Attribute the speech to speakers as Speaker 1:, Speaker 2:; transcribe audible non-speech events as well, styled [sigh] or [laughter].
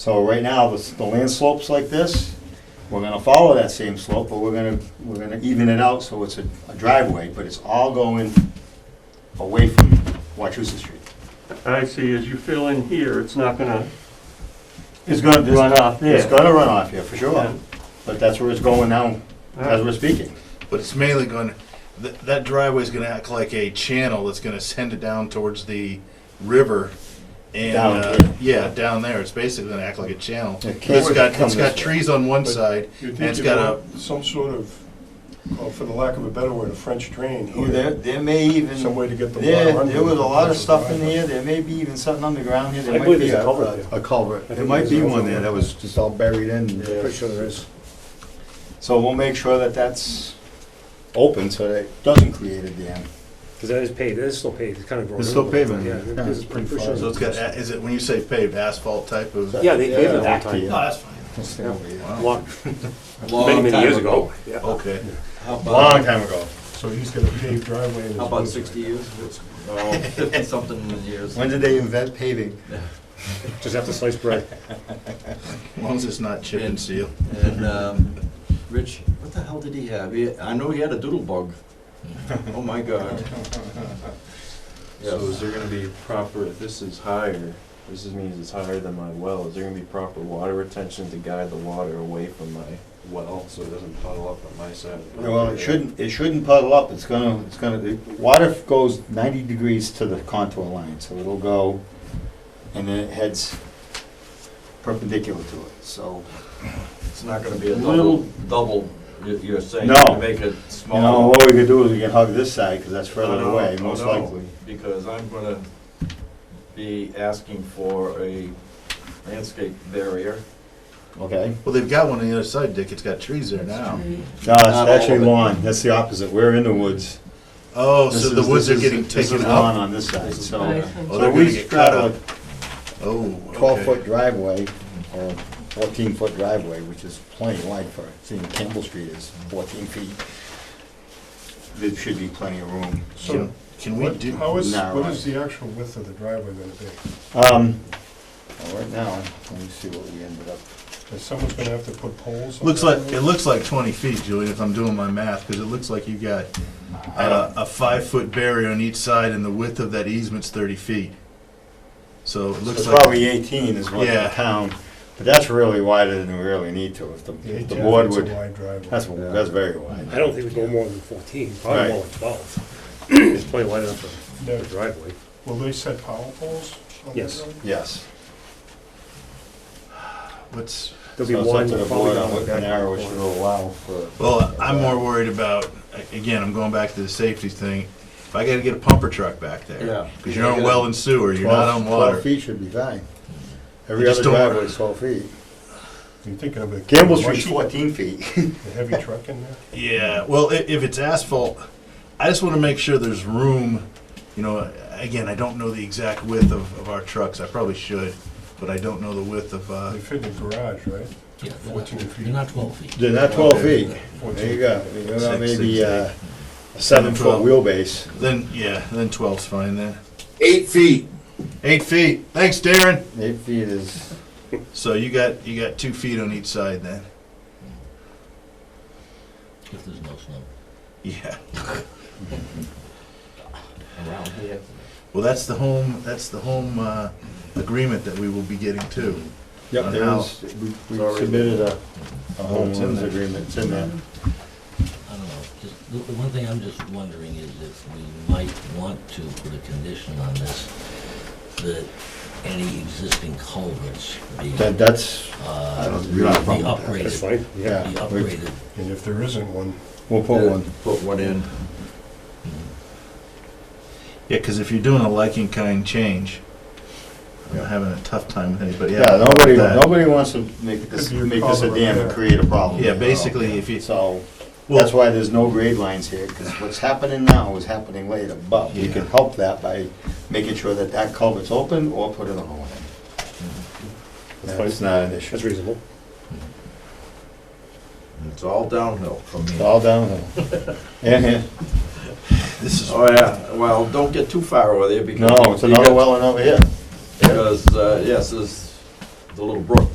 Speaker 1: So right now, the, s- the land slope's like this, we're gonna follow that same slope, but we're gonna, we're gonna even it out so it's a a driveway, but it's all going away from Wachusett Street.
Speaker 2: I see, as you fill in here, it's not gonna
Speaker 1: It's gonna
Speaker 2: run off
Speaker 1: It's
Speaker 2: there.
Speaker 1: gonna run off here, for
Speaker 2: Yeah.
Speaker 1: sure, but that's where it's going now, as
Speaker 2: Alright.
Speaker 1: we're speaking.
Speaker 3: But it's mainly going, th- that driveway's gonna act like a channel that's gonna send it down towards the river. And,
Speaker 1: Down
Speaker 3: uh,
Speaker 1: here.
Speaker 3: yeah, down there, it's basically gonna act like a channel.
Speaker 1: It
Speaker 3: But
Speaker 1: can't
Speaker 3: It's got,
Speaker 1: come
Speaker 3: it's got
Speaker 1: this way.
Speaker 3: trees on one
Speaker 4: But-
Speaker 3: side,
Speaker 4: You'd
Speaker 3: And
Speaker 4: think
Speaker 3: it's
Speaker 4: you
Speaker 3: got
Speaker 4: want some sort of, well, for the lack of a better word, a French drain
Speaker 1: Ooh, There,
Speaker 4: here,
Speaker 1: there may even,
Speaker 4: some way to get the water
Speaker 1: there,
Speaker 4: under.
Speaker 1: there was a lot of stuff in
Speaker 4: the
Speaker 1: here, there may be even something underground here,
Speaker 5: I
Speaker 1: there might
Speaker 5: believe
Speaker 1: be
Speaker 5: there's a
Speaker 1: a.
Speaker 5: culvert there.
Speaker 1: A culvert,
Speaker 5: I
Speaker 1: there
Speaker 5: think
Speaker 1: might be
Speaker 5: there's a
Speaker 1: one there
Speaker 5: culvert.
Speaker 1: that was just all buried in.
Speaker 5: Pretty sure there is.
Speaker 1: So we'll make sure that that's open so that it doesn't create a dam.
Speaker 5: Because that is paved, it is still paved, it's kind of grown.
Speaker 1: It's still
Speaker 5: over, but
Speaker 1: pavement,
Speaker 5: Yeah,
Speaker 1: yeah,
Speaker 5: because
Speaker 1: it's
Speaker 5: it's pretty
Speaker 1: pretty
Speaker 5: sure.
Speaker 3: so it's got, a- is it, when you say paved, asphalt type of?
Speaker 5: Yeah, they paved it all the
Speaker 1: Back to
Speaker 5: time.
Speaker 1: you.
Speaker 3: No, that's fine.
Speaker 1: Let's stay over here.
Speaker 3: Wow.
Speaker 5: Long, many, many years ago. Yeah.
Speaker 3: Okay.
Speaker 6: How
Speaker 1: Long
Speaker 6: about,
Speaker 1: time ago.
Speaker 4: So he's got a paved driveway. in his
Speaker 6: how about
Speaker 4: woods right
Speaker 6: sixty
Speaker 4: now.
Speaker 6: years, something in the years?
Speaker 1: When did they invent paving?
Speaker 6: [laughs]
Speaker 5: Just have to slice bread.
Speaker 3: As long as it's not chip and seal.
Speaker 6: And, um, Rich, what the hell did he have? He- I know he had a doodle bug. Oh, my
Speaker 1: [laughs]
Speaker 6: God.
Speaker 7: So is
Speaker 6: Yes.
Speaker 7: there gonna be proper, if this is higher, this is- means it's higher than my well, is there gonna be proper water retention to guide the water away from my well, so it doesn't puddle up on my side? of the
Speaker 1: Well, it
Speaker 7: road?
Speaker 1: shouldn't, it shouldn't puddle up, it's gonna, it's gonna, the water goes ninety degrees to the contour line, so it'll go, and then it heads perpendicular to it, so.
Speaker 6: It's not gonna be a
Speaker 1: Little-
Speaker 6: double, double, you- you're saying,
Speaker 1: No.
Speaker 6: make it
Speaker 1: You know,
Speaker 6: smaller.
Speaker 1: what we could do is we can hug this side, because that's further
Speaker 6: No,
Speaker 1: away,
Speaker 6: no,
Speaker 1: most
Speaker 6: no,
Speaker 1: likely.
Speaker 6: Because I'm gonna be asking for a landscape barrier.
Speaker 1: Okay?
Speaker 3: Well, they've got one on the other side, Dick, it's got trees there now.
Speaker 1: No, it's
Speaker 6: all
Speaker 1: actually
Speaker 6: of it.
Speaker 1: lawn, that's the opposite, we're in the woods.
Speaker 3: Oh, so
Speaker 1: This
Speaker 3: the
Speaker 1: is-
Speaker 3: woods
Speaker 1: this
Speaker 3: are
Speaker 1: is-
Speaker 3: getting
Speaker 1: this is
Speaker 3: taken
Speaker 1: lawn
Speaker 3: out?
Speaker 1: on this side, so.
Speaker 3: Oh,
Speaker 1: So
Speaker 3: they're gonna
Speaker 1: we
Speaker 3: get
Speaker 1: got
Speaker 3: cut
Speaker 1: a
Speaker 3: up. Oh, okay.
Speaker 1: twelve-foot driveway, or fourteen-foot driveway, which is plenty wide for, seeing Campbell Street is fourteen feet. There should be plenty of room.
Speaker 4: So
Speaker 3: Can we
Speaker 4: what,
Speaker 3: do?
Speaker 4: how is,
Speaker 1: narrow.
Speaker 4: what is the actual width of the driveway gonna be?
Speaker 1: Um, well, right now, let me see what we ended up.
Speaker 4: Is someone's gonna have to put poles? on
Speaker 3: Looks
Speaker 4: that
Speaker 3: like,
Speaker 4: road?
Speaker 3: it looks like 20 feet, Julian, if I'm doing my math, because it looks like you've got uh, a five-foot barrier on each side, and the width of that easement's 30 feet. So it looks
Speaker 1: It's
Speaker 3: like,
Speaker 1: probably eighteen is what the
Speaker 3: Yeah.
Speaker 1: town, but that's really wider than we really need to, if the, if the
Speaker 4: Yeah,
Speaker 1: board
Speaker 4: it's a
Speaker 1: would,
Speaker 4: wide driveway.
Speaker 1: that's, that's very wide.
Speaker 5: I don't think we go more than fourteen,
Speaker 1: Right.
Speaker 5: probably more like twelve. [clears throat] It's plenty wide enough for
Speaker 4: Now,
Speaker 5: a driveway.
Speaker 4: Will they set power poles on that
Speaker 5: Yes.
Speaker 4: road?
Speaker 1: Yes.
Speaker 3: what's,
Speaker 5: There'll
Speaker 1: So
Speaker 5: be
Speaker 1: it's up
Speaker 5: one
Speaker 1: to the
Speaker 5: probably
Speaker 1: board on
Speaker 5: down
Speaker 1: what
Speaker 5: the back
Speaker 1: narrow it
Speaker 5: corner.
Speaker 1: should allow for.
Speaker 3: well, I'm more worried about, a- again, I'm going back to the safety thing. If I gotta get a pumper truck back there.
Speaker 6: Yeah.
Speaker 3: Because you're on well and sewer, you're not
Speaker 1: 12
Speaker 3: on
Speaker 1: 12
Speaker 3: water.
Speaker 1: feet should be fine. Every
Speaker 3: just
Speaker 1: other
Speaker 3: don't-
Speaker 1: driveway is 12 feet.
Speaker 4: You're thinking of a.
Speaker 1: Campbell Street's
Speaker 4: mushy-
Speaker 1: 14 feet.
Speaker 4: A heavy truck in there?
Speaker 3: Yeah, well, i- if it's asphalt, I just want to make sure there's room, you know, again, I don't know the exact width of, of our trucks, I probably should, but I don't know the width of, uh,
Speaker 4: They fit in the garage, right? Fourteen feet.
Speaker 8: You're not twelve feet.
Speaker 1: [laughs] They're not 12 feet. There you
Speaker 4: 14.
Speaker 1: go. You know,
Speaker 3: Six,
Speaker 1: Maybe
Speaker 3: six,
Speaker 1: uh, a seven-foot
Speaker 3: 12.
Speaker 1: wheelbase.
Speaker 3: then, yeah, then twelve's fine then.
Speaker 6: Eight feet.
Speaker 3: Eight feet, thanks Darren.
Speaker 1: Eight feet is,
Speaker 3: So you got, you got two feet on each side then, [laughs]
Speaker 8: If there's no snow
Speaker 3: yeah.
Speaker 6: Around here.
Speaker 3: Well, that's the home, that's the home, uh, agreement that we will be getting too.
Speaker 1: yep,
Speaker 3: On
Speaker 1: there
Speaker 3: house.
Speaker 1: is, we- we
Speaker 3: already-
Speaker 1: submitted a a
Speaker 3: Oh,
Speaker 1: home
Speaker 3: it's in
Speaker 1: rules
Speaker 3: there.
Speaker 1: agreement. It's in there.
Speaker 8: I don't know, just, the, the one thing I'm just wondering is if we might want to put a condition on this, that any existing culverts be,
Speaker 1: That- That's, I
Speaker 8: uh,
Speaker 1: don't-
Speaker 8: be
Speaker 1: we don't have a problem with that.
Speaker 5: That's
Speaker 8: upgraded,
Speaker 5: fine, yeah.
Speaker 8: be
Speaker 1: yeah, we-
Speaker 8: upgraded.
Speaker 4: And if there isn't one,
Speaker 1: we'll put one.
Speaker 6: Put one in.
Speaker 3: Yeah, cause if you're doing a liking kind change, I'm having a tough time with anybody.
Speaker 1: Yeah, nobody,
Speaker 3: that.
Speaker 1: nobody wants to make this,
Speaker 4: Could be a
Speaker 1: make this a
Speaker 4: problem
Speaker 1: dam and
Speaker 4: there.
Speaker 1: create a problem.
Speaker 3: Yeah,
Speaker 1: you know?
Speaker 3: basically, if you-
Speaker 1: So,
Speaker 3: Well-
Speaker 1: that's why there's no grade lines here, because what's happening now is happening later. But we can
Speaker 3: Yeah.
Speaker 1: help that by making sure that that culvert's open or put it on.
Speaker 5: That's fine.
Speaker 1: It's not an issue.
Speaker 5: That's reasonable.
Speaker 6: It's all downhill from
Speaker 1: It's
Speaker 6: here.
Speaker 1: all
Speaker 5: [laughs]
Speaker 1: downhill. Yeah, yeah.
Speaker 3: This is
Speaker 6: Oh, yeah, well, don't get too far over there because.
Speaker 1: No, it's another well and over here.
Speaker 6: Because, uh, yes, there's the little brook